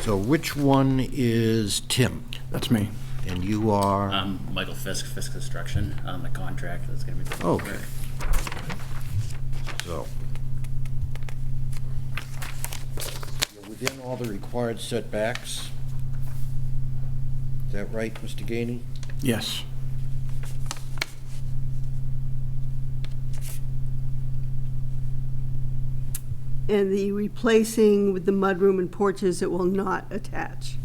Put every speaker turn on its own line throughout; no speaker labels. So which one is Tim?
That's me.
And you are,
I'm Um, Michael Fisk, Fisk Construction, on the contract that's gonna be.
Oh.
Okay. so. You're within all the required setbacks. Is that right, Mr. Ganey?
Yes.
And the replacing with the mudroom and porches, it will not attach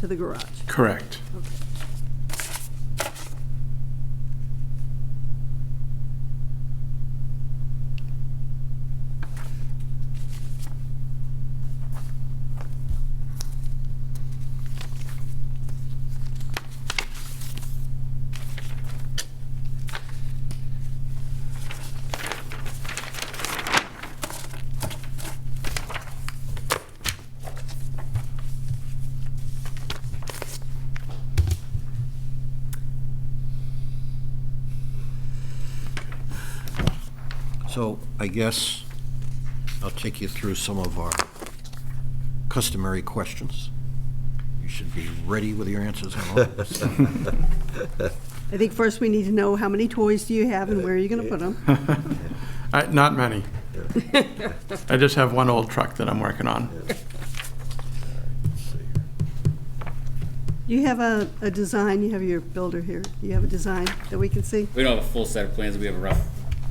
to the garage.
Correct.
So I guess I'll take you through some of our customary questions. You should be ready with your answers on all of this.
I think first we need to know how many toys do you have and where are you going to put them?
I, not many. I just have one old truck that I'm working on.
You have a, a design, you have your builder here. You have a design that we can see?
We don't have a full set of plans, we have a rough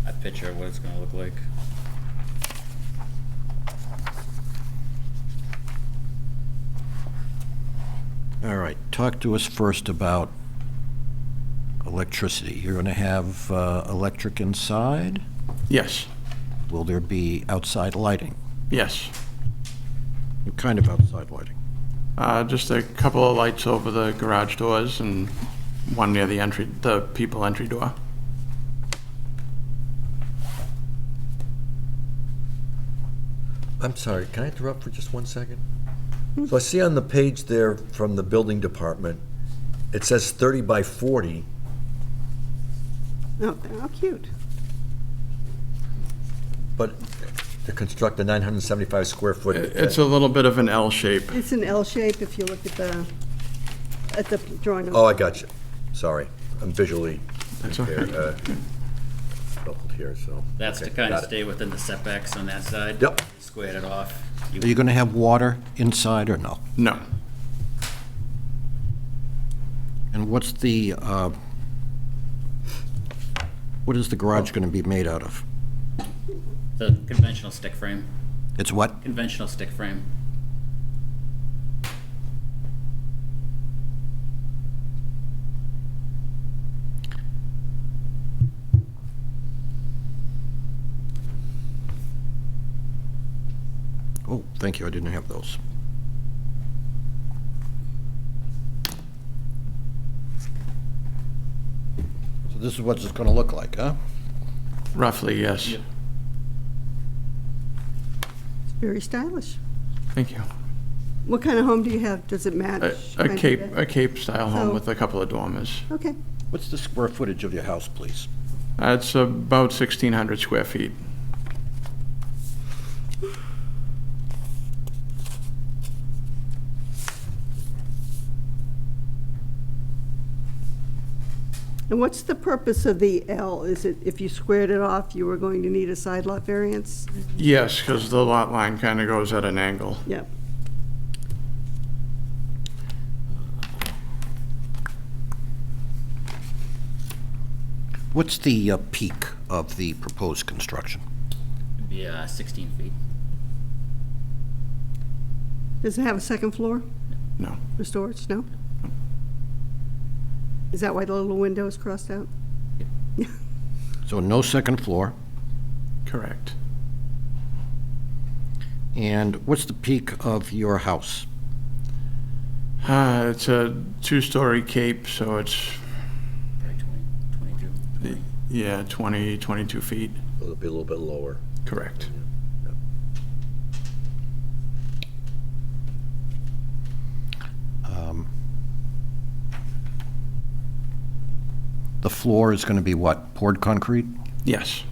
uh, picture of what it's gonna look like.
All right, talk to us first about electricity. You're going to have uh, electric inside?
Yes.
Will there be outside lighting?
Yes.
What kind of outside lighting?
Uh, just a couple of lights over the garage doors and one near the entry, the people entry door.
I'm sorry, can I interrupt for just one second? So I see on the page there from the building department, it says 30 by 40.
Oh, how cute.
But to construct a 975 square foot.
It's a little bit of an L shape.
It's an L shape if you look at the, at the drawing.
Oh, I got you. Sorry, I'm visually
That's all
impaired, uh, troubled here, so.
That's to
okay,
kinda
got it.
stay within the setbacks on that side.
Yep.
Squared it off.
Are you going to have water inside or no?
No.
And what's the, uh, what is the garage going to be made out of?
The conventional stick frame,
It's what?
conventional stick frame.
Oh, thank you, I didn't have those. So this is what it's going to look like, huh?
Roughly, yes.
Yep.
Very stylish.
Thank you.
What kind of home do you have? Does it
A,
match?
a
kind of
Cape,
that?
a Cape style
So-
home with a couple of dormers.
Okay.
What's the square footage of your house, please?
Uh, It's about 1,600 square feet.
And what's the purpose of the L? Is it if you squared it off, you were going to need a side lot variance?
Yes, because the lot line kind of goes at an angle.
Yep.
What's the uh, peak of the proposed construction?
It'd be uh, sixteen feet.
Does it have a second floor
No.
for storage? No? Is that why the little window is crossed out?
So no second floor,
Correct.
and what's the peak of your house?
Uh, it's a two-story cape, so it's,
Probably 20, 22, 20.
yeah, 20, 22 feet.
It'll be a little bit lower.
Correct.
Um, The floor is going to be what, poured concrete?
Yes.